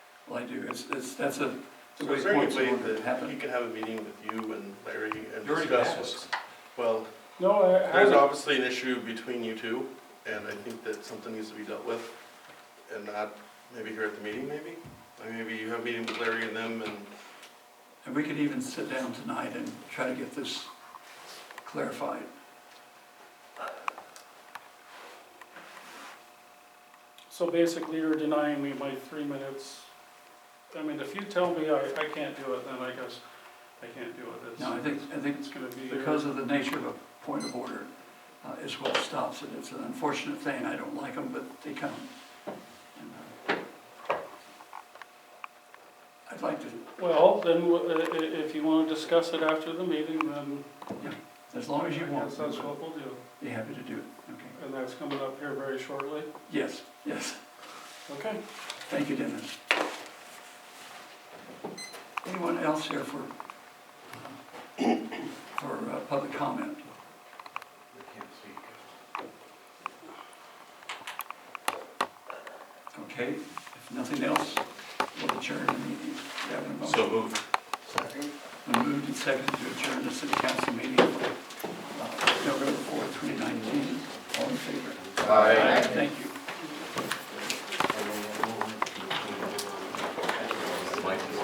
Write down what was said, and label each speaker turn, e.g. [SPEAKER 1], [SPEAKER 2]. [SPEAKER 1] Well, I do, it's, it's, that's a, the
[SPEAKER 2] So
[SPEAKER 1] way
[SPEAKER 2] is there any
[SPEAKER 1] points
[SPEAKER 2] way
[SPEAKER 1] would
[SPEAKER 2] that he
[SPEAKER 1] happen.
[SPEAKER 2] could have a meeting with you and Larry and
[SPEAKER 1] You already
[SPEAKER 2] discuss
[SPEAKER 1] have.
[SPEAKER 2] what's, well,
[SPEAKER 3] No, I,
[SPEAKER 2] there's
[SPEAKER 3] I,
[SPEAKER 2] obviously an issue between you two, and I think that something needs to be dealt with, and not maybe here at the meeting, maybe? Or maybe you have a meeting with Larry and them, and
[SPEAKER 1] And we could even sit down tonight and try to get this clarified.
[SPEAKER 3] so basically you're denying me my three minutes. I mean, if you tell me I, I can't do it, then I guess I can't do it.
[SPEAKER 1] No, I
[SPEAKER 3] It's,
[SPEAKER 1] think, I think
[SPEAKER 3] it's gonna be.
[SPEAKER 1] because of the nature of a point of order uh, is what stops it. It's an unfortunate thing, I don't like them, but they come. And, uh, I'd like to,
[SPEAKER 3] Well, then, w- i- i- if you wanna discuss it after the meeting, then
[SPEAKER 1] as long
[SPEAKER 3] I
[SPEAKER 1] as you want,
[SPEAKER 3] guess that's what we'll do.
[SPEAKER 1] be happy to do it, okay?
[SPEAKER 3] And that's coming up here very shortly.
[SPEAKER 1] Yes, yes,
[SPEAKER 3] Okay.
[SPEAKER 1] thank you, Dennis. Anyone else here for, uh, for uh, public comment? Okay, if nothing else, we'll adjourn the meeting. Do you have a motion?
[SPEAKER 2] so moved.
[SPEAKER 1] Been moved and seconded to adjourn the city council meeting for uh, November 4, 2019. All in favor?
[SPEAKER 4] Aye.
[SPEAKER 1] Thank you.